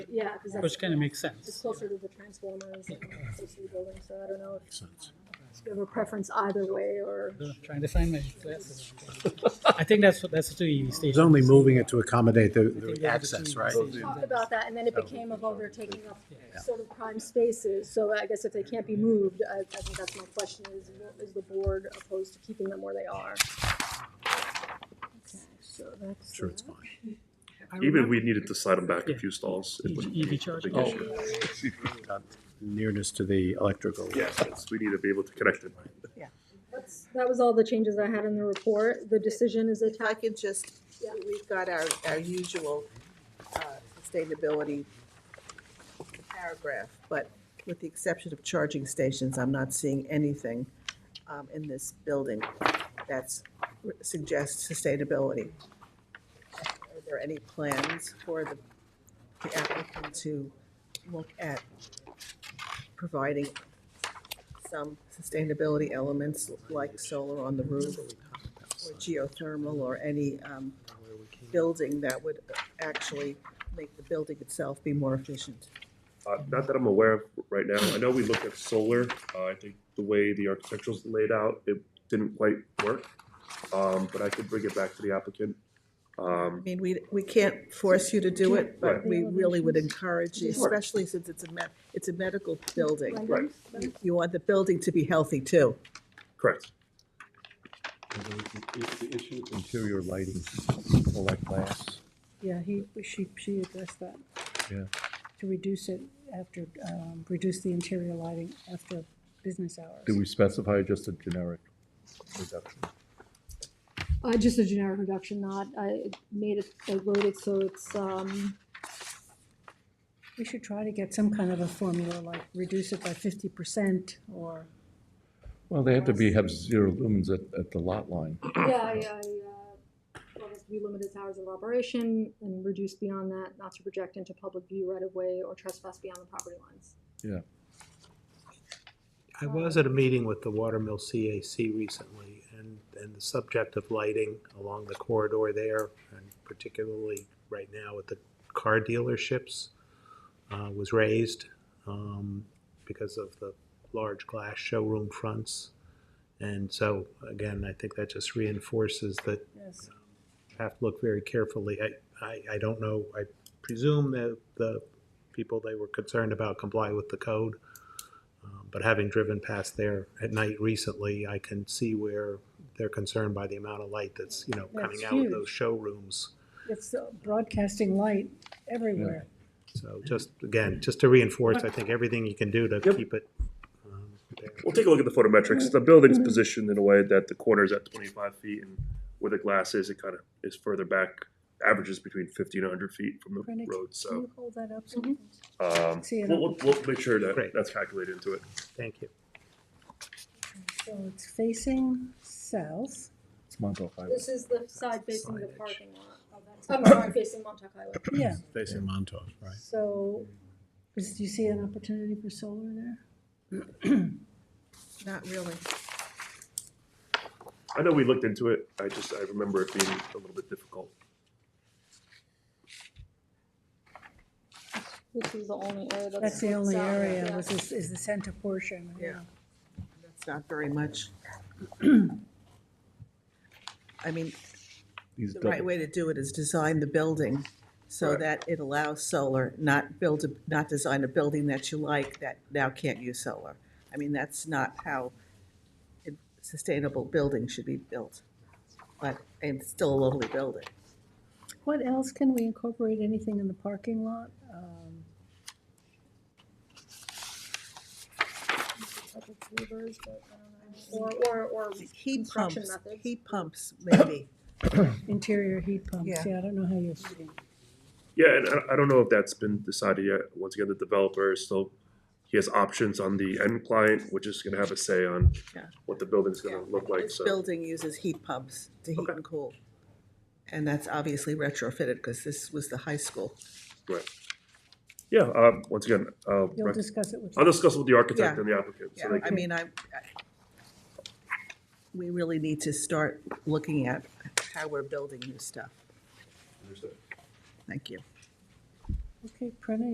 yeah, because that's. which kind of makes It's sense. closer to the transformers and the building, so I don't know if if you have a preference either way or. Trying to find my glasses. I think that's, what- that's the two EV stations. It's only moving it to accommodate the- I think the they're access, just- right? Talked about that, and then it became of overtaking up sort of prime spaces, so I guess if they can't be moved, I, I think that's my question is, is the board opposed to keeping them where they are? Okay, So that's. Sure, it's that. fine. I Even if remember we needed to slide them back a Yeah. E few stalls, it EV wouldn't be a charging. big issue. Nearness to the electrical. Yes, it's- we need to be able to connect it. That's, that was all the changes I had in the report, the decision is If I attached, could just, Yeah. we've got our, our usual uh, sustainability paragraph, but with the exception of charging stations, I'm not seeing anything um, in this building that's suggests sustainability. Are there any plans for the the applicant to look at providing some sustainability elements like solar on the roof or geothermal or any um, building that would actually make the building itself be more efficient. Uh, Not that I'm aware of right now. I know we looked at solar. Uh, I think the way the architecture's laid out, it didn't quite work. Um, But I could bring it back to the applicant. I Um, mean, we, we can't force you to do it, but Right. we really would encourage you, Sure. especially since it's a, me- it's a medical building. Right, You want the building to be healthy too. correct. The issue of interior lighting, like glass. Yeah, he, she, she addressed that. Yeah. To reduce it after, um, reduce the interior lighting after business hours. Do we specify just a generic reduction? uh, just a generic reduction, not, I made it, I wrote it so it's, um, We should try to get some kind of a formula, like reduce it by fifty percent or, Well, they have to be, have zero lumens at, at the lot line. Yeah, I, I, uh, want us to be limited to hours of operation and reduce beyond that, not to project into public view right of way or trespass beyond the property lines. I was at a meeting with the Watermill CAC recently, and, and the subject of lighting along the corridor there, and particularly right now at the car dealerships, uh, was raised, um, because of the large glass showroom fronts. And so, again, I think that just reinforces that yes, have to look very carefully. I, I, I don't know, I presume that the people they were concerned about comply with the code. Um, But having driven past there at night recently, I can see where they're concerned by the amount of light that's, you know, coming That's out of huge. those showrooms. it's uh, broadcasting light everywhere. So just, again, just to reinforce, I think everything you can do to Yep. keep it. um, there. We'll take a look at the photometrics. The building's positioned in a way that the corner's at twenty-five feet and where the glass is, it kind of is further back, averages between fifty and hundred feet from the Brennan, road, so. Can you hold that up? so Mm-hmm. we can- Um, See it we'll, on- we'll- we'll make sure that Great. that's calculated into it. Thank you. So it's facing south. It's Montauk Highway. This is the side facing the signage. parking lot. Oh, that's- I'm sorry, facing Montauk Highway. Yeah, Facing Montauk, right? so, is, do you see an opportunity for solar there? Not really. I know we looked into it. I just, I remember it being a little bit difficult. This is the only area that's. That's the only south, area, yeah. was this, is the center portion, yeah. Yeah. That's not very much. I mean, These the right double- way to do it is design the building so Right. that it allows solar, not build, a not design a building that you like that now can't use solar. I mean, that's not how a sustainable building should be built. But it's still a lovely building. What else can we incorporate, anything in the parking lot? Um, Public neighbors, but I don't know. Or, or, or Heat Construction pumps, methods. heat pumps maybe. Interior heat pumps, Yeah. yeah, I don't know how you're, Yeah, and I, I don't know if that's been decided yet. Once again, the developer is still, he has options on the end client, which is gonna have a say on Yeah. what the building's gonna look like, This so. building uses heat pumps to heat Okay. and cool. And that's obviously retrofitted because this was the high school. right. Yeah, um, once again, uh, you'll discuss it with. I'll discuss with the architect Yeah. and the applicant. so Yeah, they I can- mean, I, I- we really need to start looking at how we're building new stuff. Thank you. Okay, Prene,